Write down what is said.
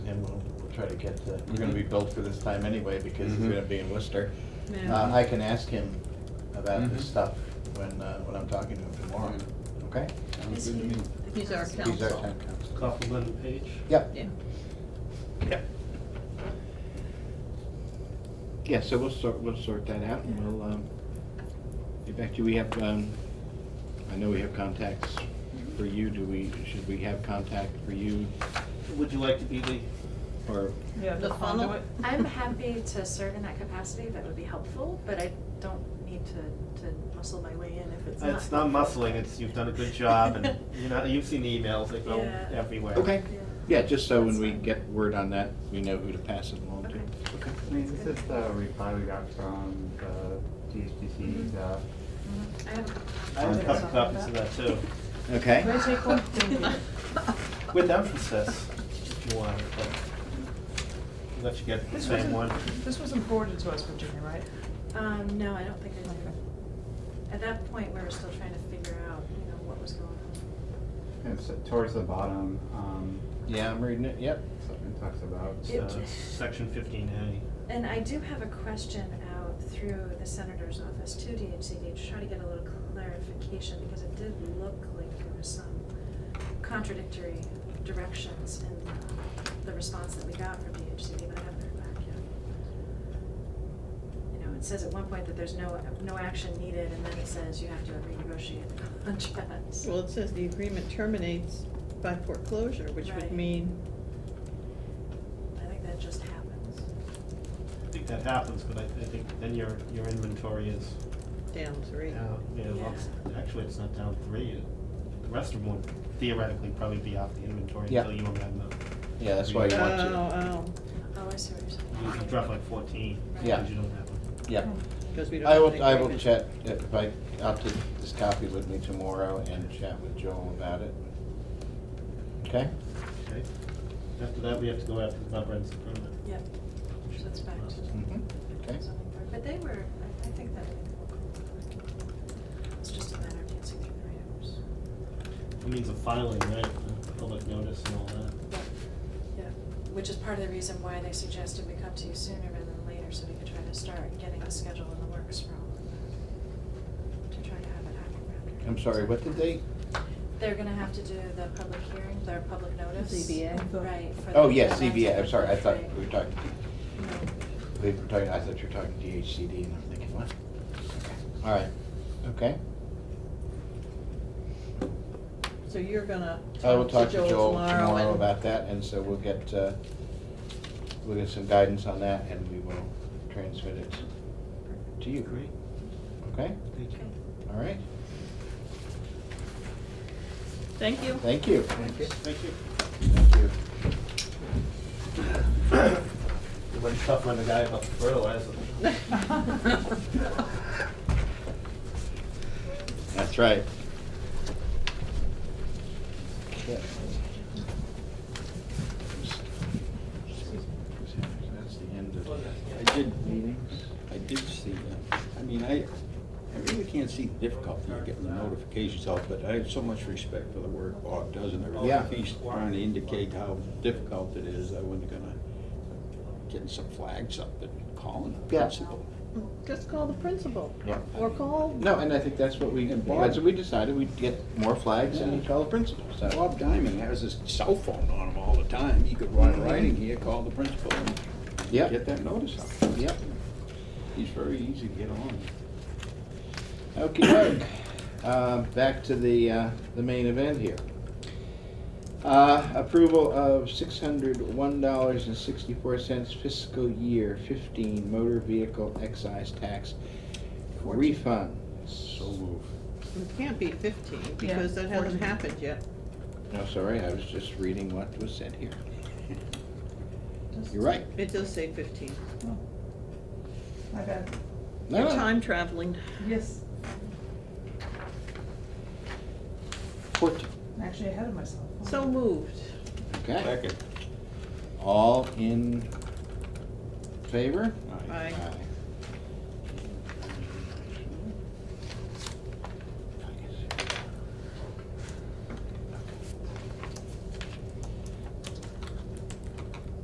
try to get the, we're gonna be billed for this time anyway because it's Mhm. gonna be in Worcester. Yeah. Uh, I can ask him about Mhm. this stuff when, uh, when I'm talking to him tomorrow, okay? Sounds Is good to he- me. He's our council. He's our town council. Compliment and Page. Yep, Yeah. yep. Yeah, so we'll sort, we'll sort that out and we'll, um, get back to you. We have, um, I know we have contacts for you. Do we, should we have contact for you Would you like to be the, or? Yeah, The the funnel? conduit. I'm happy to serve in that capacity, that would be helpful, but I don't need to, to muscle my way in if it's not. it's not muscling, it's, you've done a good job and, you know, you've seen the emails, they go Yeah. everywhere. Okay, Yeah. yeah, just so when That's we fine. get word on that, we know who to pass it along to. Okay. Okay. I mean, this is the reply we got from the DHCC, uh, Mhm. I have, I have a couple copies of that too, Okay. Can I take one? Thank you. with emphasis, if you want, but I'll let you get the This same one. wasn't, this wasn't forwarded to us, Virginia, right? um, no, I don't think I Okay. do. At that point, we were still trying to figure out, you know, what was going on. it's towards the bottom, um, Yeah, I'm reading it, yep. something talks about. It's, It- uh, Section fifteen A. And I do have a question out through the senator's office to DHCD to try to get a little clarification, because it did look like there was some contradictory directions in the response that we got from DHCD, but I haven't heard back yet. You know, it says at one point that there's no, no action needed, and then it says you have to renegotiate the contracts. Well, it says the agreement terminates by foreclosure, which Right. would mean, I think that just happens. I think that happens, but I, I think then your, your inventory is down three. Oh, down, yeah, well, it's- actually, it's not down three. The rest of them would theoretically probably be off the inventory Yeah. until you amend them. Yeah, that's why you want to. Oh, oh, Oh, I see what you're saying. You can drop like fourteen, Yeah. because you don't have them. Yep. Oh, because we don't I have will, an I will agreement. chat, if I, I'll take this copy with me tomorrow and chat with Joel about it. Okay? Okay. After that, we have to go after the comprehensive permit. Yep, so it's back to. Mhm. Okay. Something there. But they were, I- I think that they were cool. It's just a matter of dancing through the items. It means a filing, right, a public notice and all that. Yeah, which is part of the reason why they suggested we come to you sooner rather than later, so we could try to start getting a schedule in the works for all of that. To try to have it happen around. I'm sorry, what did they, They're gonna have to do the public hearing, their public notice. ZBA. Right. for oh, the- yes, the CBA, I'm event. sorry, I thought Right. we were talking, No. we were talking, I thought you were talking DHCD and I'm thinking, what? All right, okay. So you're gonna I will talk talk to Joel tomorrow and- about that, and so we'll get, uh, we'll get some guidance on that, and we will transmit it to you. Great, Okay, thank you. Okay. all right, Thank you. thank you. Thank you. Thank you. Thank you. It went tough on the guy about the fertilizer. That's right. Okay. That's the end of I did meetings, I did see that. I mean, I, I really can't see the difficulty of getting the notifications out, but I have so much respect for the work Bob does and everything. Yeah. If he's trying to indicate how difficult it is, I wasn't gonna, getting some flags up and calling the Yeah. principal. Just call the principal. Yeah. Or call, No, and I think that's what we, And Bob- that's what we decided, we'd get more flags and call the principal, so. Bob Diamond has his cell phone on him all the time. He could ride riding here, call the principal and Yep, get that notice out. yep. He's very easy to get along with. Okay, uh, back to the, uh, the main event here. Uh, approval of six hundred one dollars and sixty-four cents fiscal year fifteen motor vehicle excise tax refund. So Oh, move. it can't be fifteen, Yeah, because that hasn't 14. happened yet. No, sorry, I was just reading what was said here. You're right. It does say fifteen. oh. My bad. No, You're no. time traveling. Yes, Fourteen. I'm actually ahead of myself. So moved. Okay, Second. all in favor? Aye. Aye. Aye.